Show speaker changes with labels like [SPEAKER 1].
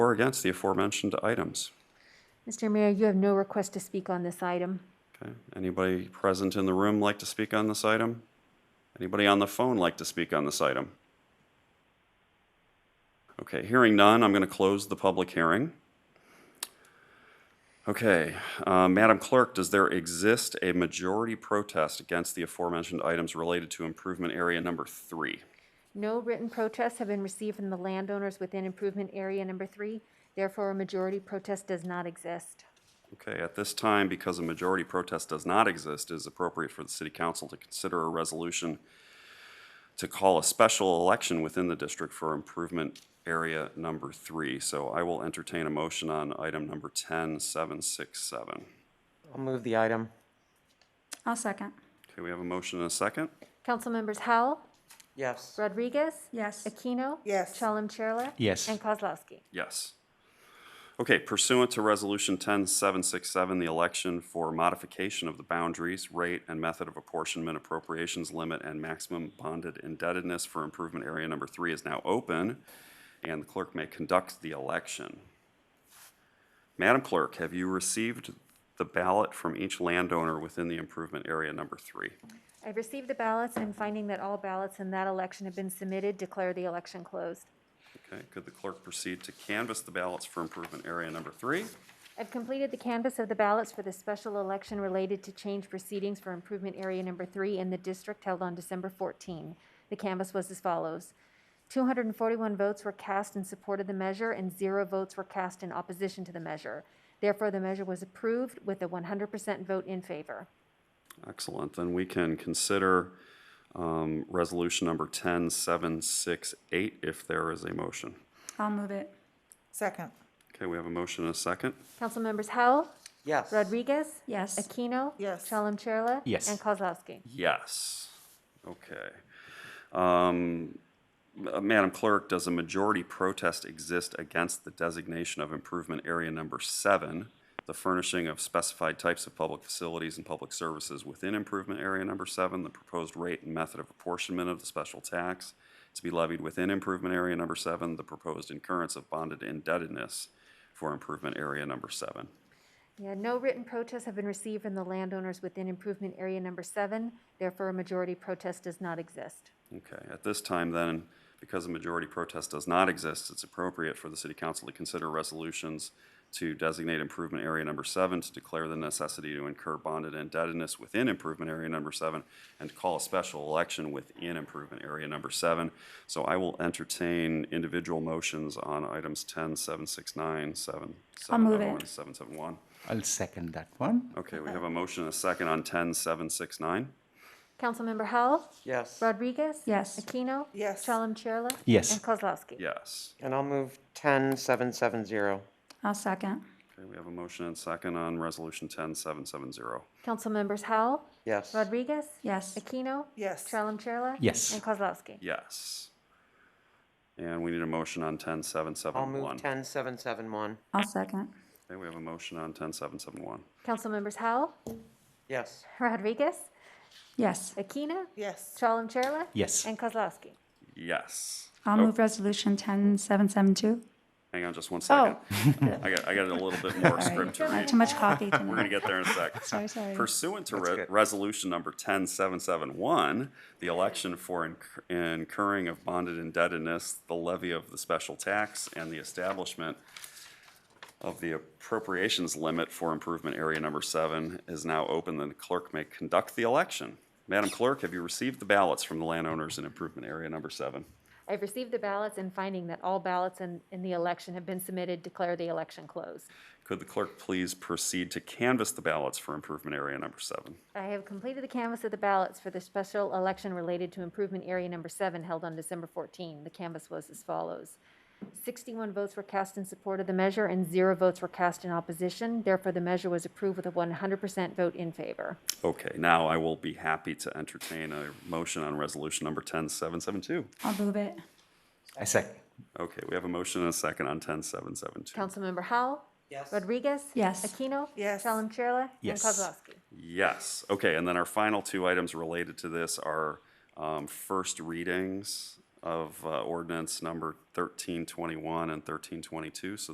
[SPEAKER 1] or against the aforementioned items?
[SPEAKER 2] Mr. Mayor, you have no request to speak on this item.
[SPEAKER 1] Okay, anybody present in the room like to speak on this item? Anybody on the phone like to speak on this item? Okay, hearing none, I'm going to close the public hearing. Okay, uh, Madam Clerk, does there exist a majority protest against the aforementioned items related to improvement area number three?
[SPEAKER 2] No written protests have been received from the landowners within improvement area number three. Therefore, a majority protest does not exist.
[SPEAKER 1] Okay, at this time, because a majority protest does not exist, it is appropriate for the city council to consider a resolution to call a special election within the district for improvement area number three. So I will entertain a motion on item number ten seven six seven.
[SPEAKER 3] I'll move the item.
[SPEAKER 4] I'll second.
[SPEAKER 1] Okay, we have a motion and a second?
[SPEAKER 2] Council members Howell,
[SPEAKER 3] Yes.
[SPEAKER 2] Rodriguez,
[SPEAKER 4] Yes.
[SPEAKER 2] Aquino.
[SPEAKER 5] Yes.
[SPEAKER 2] Chalem Chella.
[SPEAKER 6] Yes.
[SPEAKER 2] And Kozlowski.
[SPEAKER 1] Yes. Okay, pursuant to Resolution 10767, the election for modification of the boundaries, rate, and method of apportionment appropriations limit and maximum bonded indebtedness for improvement area number three is now open, and the clerk may conduct the election. Madam Clerk, have you received the ballot from each landowner within the improvement area number three?
[SPEAKER 2] I've received the ballots and finding that all ballots in that election have been submitted, declare the election closed.
[SPEAKER 1] Okay, could the clerk proceed to canvass the ballots for improvement area number three?
[SPEAKER 2] I've completed the canvass of the ballots for the special election related to change proceedings for improvement area number three in the district held on December 14. The canvass was as follows. 241 votes were cast in support of the measure and zero votes were cast in opposition to the measure. Therefore, the measure was approved with a 100% vote in favor.
[SPEAKER 1] Excellent, then we can consider um, resolution number 10768 if there is a motion.
[SPEAKER 4] I'll move it.
[SPEAKER 5] Second.
[SPEAKER 1] Okay, we have a motion and a second.
[SPEAKER 2] Councilmembers Howell,
[SPEAKER 3] Yes.
[SPEAKER 2] Rodriguez,
[SPEAKER 4] Yes.
[SPEAKER 2] Aquino,
[SPEAKER 5] Yes.
[SPEAKER 2] Chalem Chella,
[SPEAKER 6] Yes.
[SPEAKER 2] and Kozlowski.
[SPEAKER 1] Yes. Okay. Um, Ma- Madam Clerk, does a majority protest exist against the designation of improvement area number seven, the furnishing of specified types of public facilities and public services within improvement area number seven, the proposed rate and method of apportionment of the special tax to be levied within improvement area number seven, the proposed incurrence of bonded indebtedness for improvement area number seven?
[SPEAKER 2] Yeah, no written protests have been received from the landowners within improvement area number seven. Therefore, a majority protest does not exist.
[SPEAKER 1] Okay, at this time then, because a majority protest does not exist, it's appropriate for the city council to consider resolutions to designate improvement area number seven, to declare the necessity to incur bonded indebtedness within improvement area number seven, and to call a special election within improvement area number seven. So I will entertain individual motions on items ten, seven, six, nine, seven,
[SPEAKER 4] I'll
[SPEAKER 1] seven,
[SPEAKER 4] move
[SPEAKER 1] oh,
[SPEAKER 4] it.
[SPEAKER 1] and seven, seven, one.
[SPEAKER 6] I'll second that one.
[SPEAKER 1] Okay, we have a motion and a second on ten, seven, six, nine.
[SPEAKER 2] Councilmember Howell,
[SPEAKER 3] Yes.
[SPEAKER 2] Rodriguez?
[SPEAKER 4] Yes.
[SPEAKER 2] Aquino?
[SPEAKER 5] Yes.
[SPEAKER 2] Chalem Chella?
[SPEAKER 6] Yes.
[SPEAKER 2] And Kozlowski?
[SPEAKER 1] Yes.
[SPEAKER 3] And I'll move 10770.
[SPEAKER 4] I'll second.
[SPEAKER 1] Okay, we have a motion and second on Resolution 10770.
[SPEAKER 2] Councilmembers Howell,
[SPEAKER 3] Yes.
[SPEAKER 2] Rodriguez?
[SPEAKER 4] Yes.
[SPEAKER 2] Aquino?
[SPEAKER 5] Yes.
[SPEAKER 2] Chalem Chella?
[SPEAKER 6] Yes.
[SPEAKER 2] And Kozlowski?
[SPEAKER 1] Yes. And we need a motion on
[SPEAKER 3] I'll move
[SPEAKER 1] 10771.
[SPEAKER 3] 10771.
[SPEAKER 4] I'll second.
[SPEAKER 1] Okay, we have a motion on 10771.
[SPEAKER 2] Councilmembers Howell,
[SPEAKER 3] Yes.
[SPEAKER 2] Rodriguez?
[SPEAKER 4] Yes.
[SPEAKER 2] Aquino?
[SPEAKER 5] Yes.
[SPEAKER 2] Chalem Chella?
[SPEAKER 6] Yes.
[SPEAKER 2] And Kozlowski?
[SPEAKER 1] Yes.
[SPEAKER 4] I'll
[SPEAKER 1] Oh,
[SPEAKER 4] move resolution 10772.
[SPEAKER 1] Hang on just one second.
[SPEAKER 3] Oh.
[SPEAKER 1] I got, I got a little bit more script to
[SPEAKER 4] I had
[SPEAKER 1] read.
[SPEAKER 4] too much coffee
[SPEAKER 1] We're going
[SPEAKER 4] tonight.
[SPEAKER 1] to get there in a sec.
[SPEAKER 4] Sorry, sorry.
[SPEAKER 1] Pursuant to re- Resolution Number 10771, the election for inc- incurring of bonded indebtedness, the levy of the special tax, and the establishment of the appropriations limit for improvement area number seven is now open, and the clerk may conduct the election. Madam Clerk, have you received the ballots from the landowners in improvement area number seven?
[SPEAKER 2] I've received the ballots and finding that all ballots in, in the election have been submitted, declare the election closed.
[SPEAKER 1] Could the clerk please proceed to canvass the ballots for improvement area number seven?
[SPEAKER 2] I have completed the canvass of the ballots for the special election related to improvement area number seven held on December 14. The canvass was as follows. 61 votes were cast in support of the measure and zero votes were cast in opposition. Therefore, the measure was approved with a 100% vote in favor.
[SPEAKER 1] Okay, now I will be happy to entertain a motion on resolution number 10772.
[SPEAKER 4] I'll move it.
[SPEAKER 6] I second.
[SPEAKER 1] Okay, we have a motion and a second on 10772.
[SPEAKER 2] Councilmember Howell?
[SPEAKER 3] Yes.
[SPEAKER 2] Rodriguez?
[SPEAKER 4] Yes.
[SPEAKER 2] Aquino?
[SPEAKER 5] Yes.
[SPEAKER 2] Chalem-Chella?
[SPEAKER 6] Yes.
[SPEAKER 2] And Kozlowski?
[SPEAKER 1] Yes, okay, and then our final two items related to this are um, first readings of uh, ordinance number 1321 and 1322. So